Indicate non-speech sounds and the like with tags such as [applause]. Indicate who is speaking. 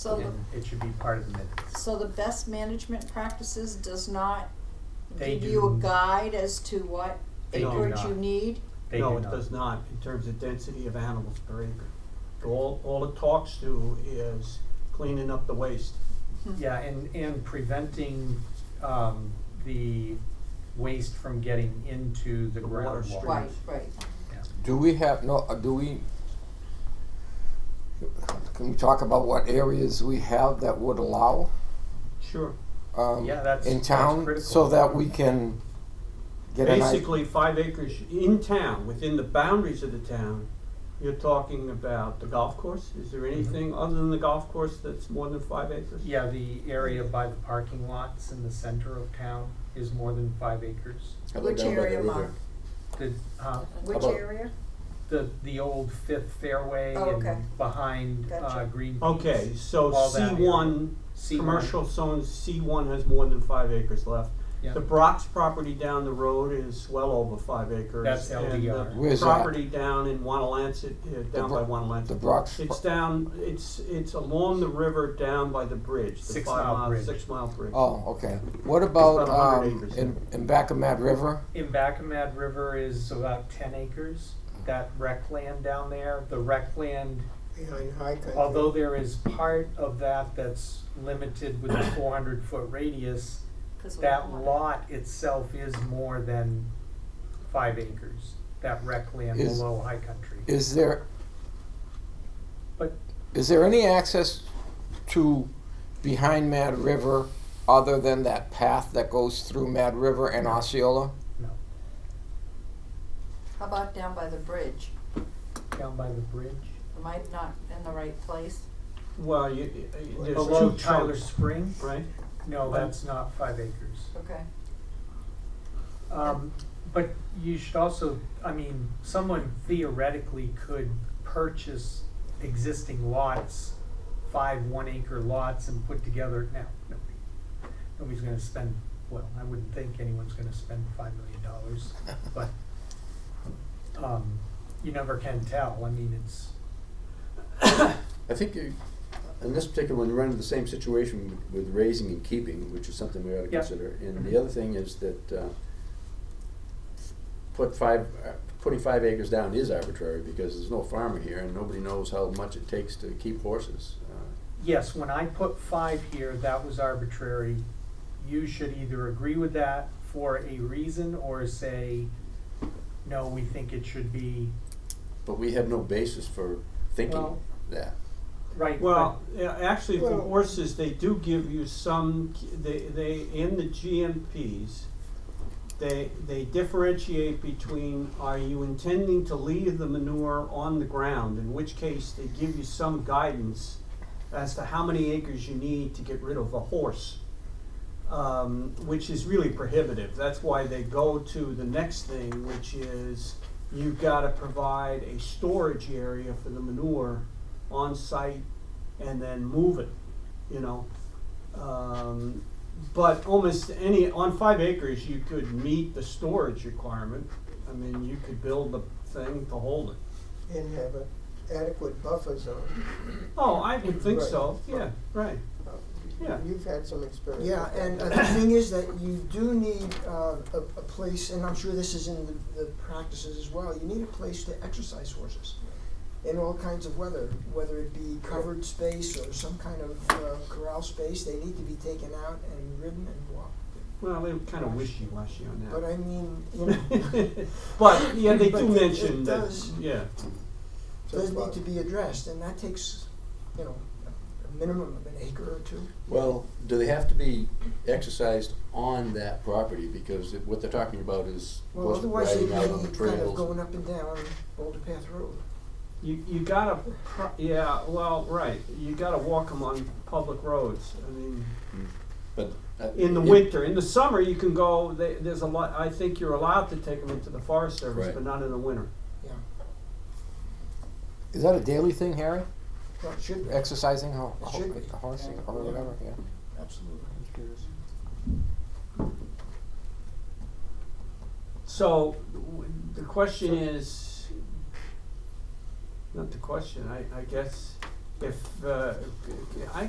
Speaker 1: So the,
Speaker 2: And it should be part of the minutes.
Speaker 1: so the best management practices does not
Speaker 2: They
Speaker 1: give you a
Speaker 2: do-
Speaker 1: guide as to what
Speaker 2: They do
Speaker 1: acreage you
Speaker 2: not.
Speaker 1: need?
Speaker 2: They
Speaker 3: No,
Speaker 2: do
Speaker 3: it
Speaker 2: not.
Speaker 3: does not, in terms of density of animals per acre. All, all it talks to is cleaning up the waste.
Speaker 2: Yeah, and, and preventing, um, the waste from getting into the
Speaker 3: The water
Speaker 2: groundwater.
Speaker 3: stream.
Speaker 1: Right, right.
Speaker 2: Yeah.
Speaker 4: Do we have, no, uh, do we, can we talk about what areas we have that would allow?
Speaker 3: Sure.
Speaker 4: um,
Speaker 2: Yeah, that's-
Speaker 4: In
Speaker 2: that's
Speaker 4: town,
Speaker 2: critical.
Speaker 4: so that we can get an idea?
Speaker 3: Basically, five acres in town, within the boundaries of the town, you're talking about the golf course? Is there anything other than the golf course that's more than five acres?
Speaker 2: Mm-hmm. Yeah, the area by the parking lots in the center of town is more than five acres.
Speaker 4: I
Speaker 1: Which
Speaker 4: don't know
Speaker 1: area,
Speaker 4: either.
Speaker 1: Mark?
Speaker 2: The, uh,
Speaker 1: Which
Speaker 4: about-
Speaker 1: area?
Speaker 2: the, the old Fifth Fairway
Speaker 1: Oh, okay.
Speaker 2: and behind, uh,
Speaker 1: Gotcha.
Speaker 2: Green Peas.
Speaker 3: Okay, so
Speaker 2: all that
Speaker 3: C
Speaker 2: area.
Speaker 3: one,
Speaker 2: C1.
Speaker 3: commercial zone, C one has more than five acres left.
Speaker 2: Yeah.
Speaker 3: The Brock's property down the road is well over five acres.
Speaker 2: That's
Speaker 3: and the
Speaker 2: LDR.
Speaker 4: Where's that?
Speaker 3: Property down in Wanalancet, uh, down
Speaker 4: Bro-
Speaker 3: by Wanalancet.
Speaker 4: The Brock's, pro-
Speaker 3: It's down, it's, it's along the river down by the bridge, the
Speaker 2: Six
Speaker 3: five
Speaker 2: mile
Speaker 3: mile,
Speaker 2: bridge.
Speaker 3: six mile bridge.
Speaker 4: oh, okay. What
Speaker 3: about
Speaker 4: about,
Speaker 3: 100
Speaker 4: um,
Speaker 3: acres.
Speaker 4: in, in back of Mad River?
Speaker 2: Imbacamad River is about ten acres, that rec land down there, the rec land,
Speaker 5: behind High Country.
Speaker 2: although there is part of that that's limited with a four hundred foot radius,
Speaker 1: 'Cause we
Speaker 2: that
Speaker 1: want-
Speaker 2: lot itself is more than five acres, that rec land
Speaker 4: Is-
Speaker 2: below high country.
Speaker 4: Is there,
Speaker 2: But
Speaker 4: is there any access to behind Mad River other than that path that goes through Mad River and Osceola?
Speaker 2: no,
Speaker 1: How about down by the bridge?
Speaker 2: down by the bridge,
Speaker 1: Am I not in the right place?
Speaker 3: Well, you, you- there's
Speaker 2: below
Speaker 3: two
Speaker 2: Tyler
Speaker 3: chunks,
Speaker 2: Spring,
Speaker 3: right?
Speaker 2: no,
Speaker 3: Right.
Speaker 2: that's not five acres.
Speaker 1: Okay.
Speaker 2: Um, but you should also, I mean, someone theoretically could purchase existing lots, five one acre lots and put together, now, nobody, nobody's gonna spend, well, I wouldn't think anyone's gonna spend five million dollars, but, um, you never can tell, I mean, it's,
Speaker 6: I think you, in this particular one, you run into the same situation with with raising and keeping, which is something we ought to
Speaker 2: Yeah.
Speaker 6: consider. And the other thing is that, uh, put five, uh, putting five acres down is arbitrary because there's no farmer here and nobody knows how much it takes to keep horses. Uh,
Speaker 2: yes, when I put five here, that was arbitrary. You should either agree with that for a reason or say, no, we think it should be
Speaker 6: But we have no basis for
Speaker 2: Well-
Speaker 6: thinking that.
Speaker 2: Right.
Speaker 3: Well, yeah, actually for
Speaker 5: Well-
Speaker 3: horses, they do give you some, they, they, in the GMPs, they, they differentiate between, are you intending to leave the manure on the ground? In which case, they give you some guidance as to how many acres you need to get rid of a horse. um, which is really prohibitive. That's why they go to the next thing, which is you've got to provide a storage area for the manure on site and then move it, you know. Um, but almost any, on five acres, you could meet the storage requirement. I mean, you could build the thing to hold it.
Speaker 5: And have an adequate buffer zone.
Speaker 3: Oh, I would think
Speaker 5: Right.
Speaker 3: so. Yeah, right.
Speaker 5: Uh,
Speaker 3: Yeah.
Speaker 5: You've had some experience.
Speaker 7: Yeah,
Speaker 5: with that.
Speaker 7: and uh, the thing is that you do need uh, a, a place, and I'm sure this is in the, the practices as well, you need a place to exercise horses in all kinds of weather, whether it be covered space or some kind of uh, corral space, they need to be taken out and ridden and walked.
Speaker 3: Well, they kind of wishy-washy on that.
Speaker 7: But I mean, you know,
Speaker 3: [laughs] But, yeah, they
Speaker 7: But
Speaker 3: do
Speaker 7: it-
Speaker 3: mention
Speaker 7: it
Speaker 3: that,
Speaker 7: does.
Speaker 3: yeah.
Speaker 7: those need to be addressed, and that takes, you know, a- a minimum of an acre or two.
Speaker 6: Well, do they have to be exercised on that property? Because it- what they're talking about is
Speaker 7: Well,
Speaker 6: horse
Speaker 7: otherwise
Speaker 6: riding
Speaker 7: they'd be
Speaker 6: out on the
Speaker 7: kind of
Speaker 6: trails.
Speaker 7: going up and down Boulder Path Road.
Speaker 3: You, you gotta, pro- yeah, well, right, you gotta walk them on public roads, I mean,
Speaker 6: But, uh,
Speaker 3: in the
Speaker 6: it-
Speaker 3: winter, in the summer, you can go, they, there's a lot, I think you're allowed to take them into the Forest Service,
Speaker 6: Right.
Speaker 3: but not in the winter.
Speaker 7: Yeah,
Speaker 4: Is that a daily thing, Harry?
Speaker 7: well, it should be,
Speaker 4: Exercising ho-
Speaker 7: It
Speaker 4: ho-
Speaker 7: should be.
Speaker 4: horse
Speaker 7: Yeah.
Speaker 4: or whatever, yeah.
Speaker 7: absolutely.
Speaker 3: So, w- the question is, not the question, I, I guess, if, uh, I,